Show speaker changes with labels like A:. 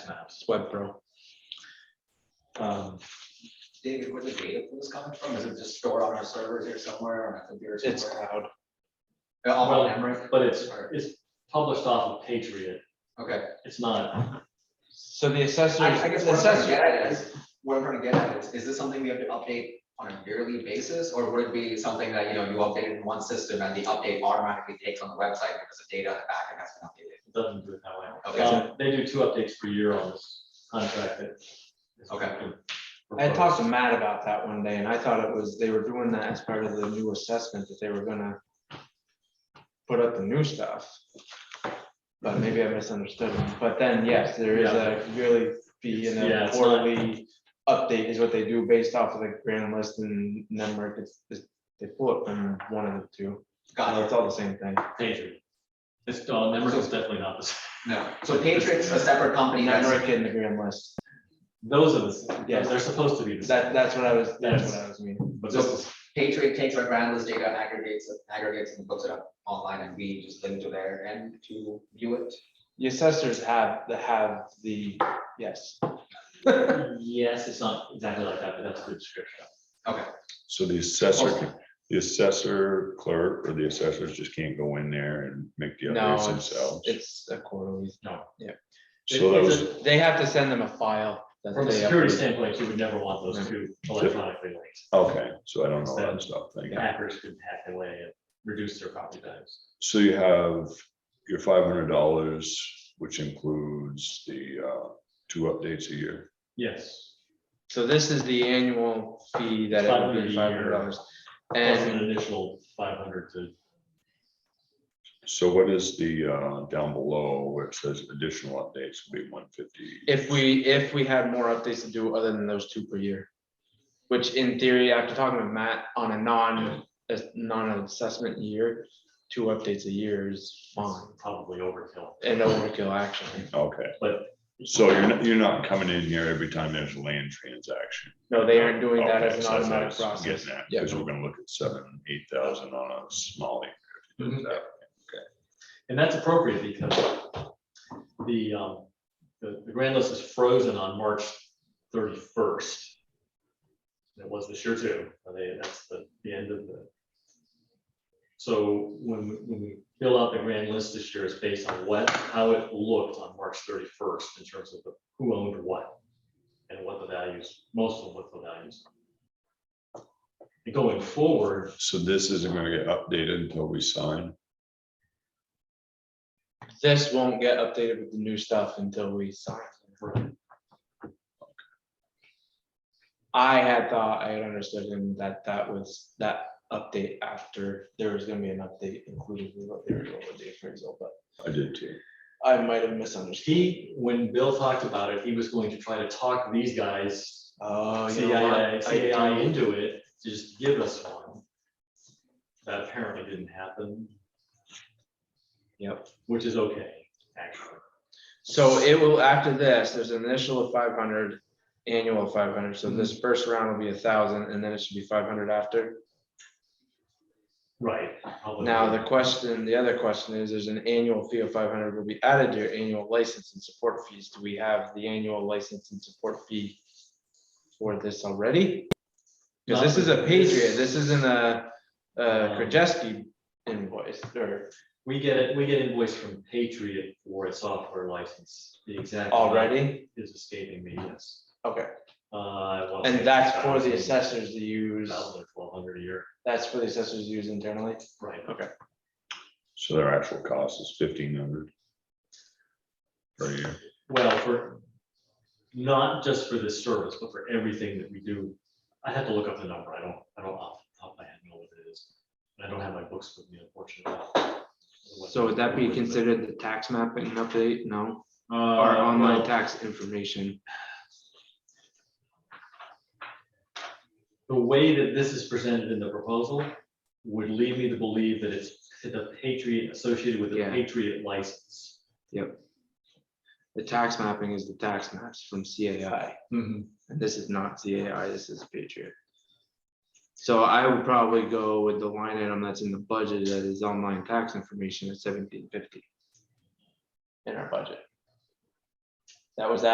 A: Webpro. Um,
B: David, where the data pool is coming from? Is it just stored on our servers or somewhere on a computer
A: It's
B: somewhere?
A: cloud.
B: Uh, All on memory?
C: But it's, it's published off of Patriot.
B: Okay.
C: It's not,
A: So the assessors.
B: I I guess what I'm trying to
A: assessor-
B: get at is, what I'm trying to get at is, is this something we have to update on a yearly basis? Or would it be something that, you know, you update in one system and the update automatically takes on the website because the data on the back end has been updated?
C: it doesn't do it that way.
B: Okay.
C: Um, They do two updates per year on this contract that.
B: Okay.
A: I had talked to Matt about that one day and I thought it was, they were doing that as part of the new assessment that they were gonna put up the new stuff. But maybe I misunderstood. him. But then, yes, there is a yearly fee and
C: Yeah,
A: a
C: it's not-
A: quarterly update is what they do based off of the grand list and number. It's, it's- they pull it from one of the two.
B: Got
A: It's all the same thing.
C: Patriot. It's, uh, Nemrick is definitely not the same.
B: it. No. So Patriot's a separate company that's,
A: Nemrick and the grand list.
C: Those are the, same.
A: Yes.
C: they're supposed to be the same.
A: That, that's what I was, that's
C: Yes.
A: what I was meaning.
C: But this is,
B: Patriot takes our grand list data, aggregates, it- aggregates and puts it up online and we just link to their end to view it.
A: The assessors have, the have the, yes.
C: yes, it's not exactly like that, but that's a good description.
D: So the assessor, can- the assessor clerk or the assessors just can't go in there and make the
A: No,
D: updates
A: it's-
D: themselves.
A: It's a quarterly.
C: No.
A: Yeah.
D: So that
C: It's a-
D: was,
A: They have to send them a file. that
C: From a
A: they
C: security
A: upload.
C: standpoint, you would never want those two electronically linked.
D: okay, so I don't know that stuff, thank you.
C: Hackers could hack their way and reduce their copy times.
D: So you have your five hundred dollars, which includes the uh, two updates a year.
C: Yes.
A: So this is the annual fee that it would be five hundred
C: $500 a
A: dollars.
C: year. Plus an
A: And
C: initial five hundred to,
D: So what is the uh, down below where it says additional updates will be one fifty?
A: if we, if we had more updates to do other than those two per year. Which in theory, after talking with Matt, on a non, a non-assessment year, two updates a year is fine.
C: it's probably overkill.
A: And overkill actually.
D: Okay,
C: But-
D: so you're not, you're not coming in here every time there's a land transaction.
A: No, they aren't doing that as
D: Oh, Okay,
A: an
D: so that's what I
A: automatic
D: was
A: process.
D: Getting that,
A: Yeah.
D: because we're gonna look at seven, eight thousand on a small. acre.
A: Mm-hmm.
B: Mhm.
C: And that's appropriate because the, um, the, the grand list is frozen on March thirty-first. It was this year too, and they, that's the, the end of the. So when, we- when we fill out the grand list this year, it's based on what, how it looked on March thirty-first in terms of the- who owned what. And what the values, most of what the values. are. And going forward,
D: So this isn't gonna get updated until we sign.
A: This won't get updated with the new stuff until we sign. I had thought, I had understood him that that was that update after, there was gonna be an update included with what they were doing with the appraisal, but
D: I did too.
A: I might have misunderstood.
C: He, when Bill talked about it, he was going to try to talk these guys,
A: Oh, you know
C: CAI,
A: what?
C: CAI
A: I do-
C: into it, to just give us one. That apparently didn't happen.
A: Yep.
C: Which is okay, actually.
A: So it will, after this, there's an initial of five hundred, annual of five hundred, so this
D: Mm-hmm.
A: first round will be a thousand, and then it should be five hundred after.
C: Right. probably.
A: Now, the question, the other question is, there's an annual fee of five hundred will be added to your annual license and support fees. Do we have the annual license and support fee for this already? Because this is a Patriot, this isn't a, a Krajewski invoice, or
C: We get it, we get invoice from Patriot for a software license. The exact. amount
A: already,
C: Is escaping me, yes.
A: okay,
C: Uh, I wanna say
A: and that's for the
C: 1,000,
A: assessors to use,
C: 1,000 or 1,200 a year,
A: that's for the assessors to use internally.
C: right.
D: So their actual cost is fifteen hundred. Per year.
C: Well, for, not just for this service, but for everything that we do. I have to look up the number. I don't, I don't off, the top of my head know what it is. And I don't have my books with me unfortunately.
A: So would that be considered the tax mapping update? No,
C: Uh,
A: or online
C: well,
A: tax information?
C: The way that this is presented in the proposal would lead me to believe that it's the Patriot associated with the
A: Yeah.
C: Patriot license.
A: The tax mapping is the tax maps from CAI,
B: Mhm.
A: and this is not CAI, this is Patriot. So I would probably go with the line item that's in the budget that is online tax information at seventeen fifty. In our budget. That was that.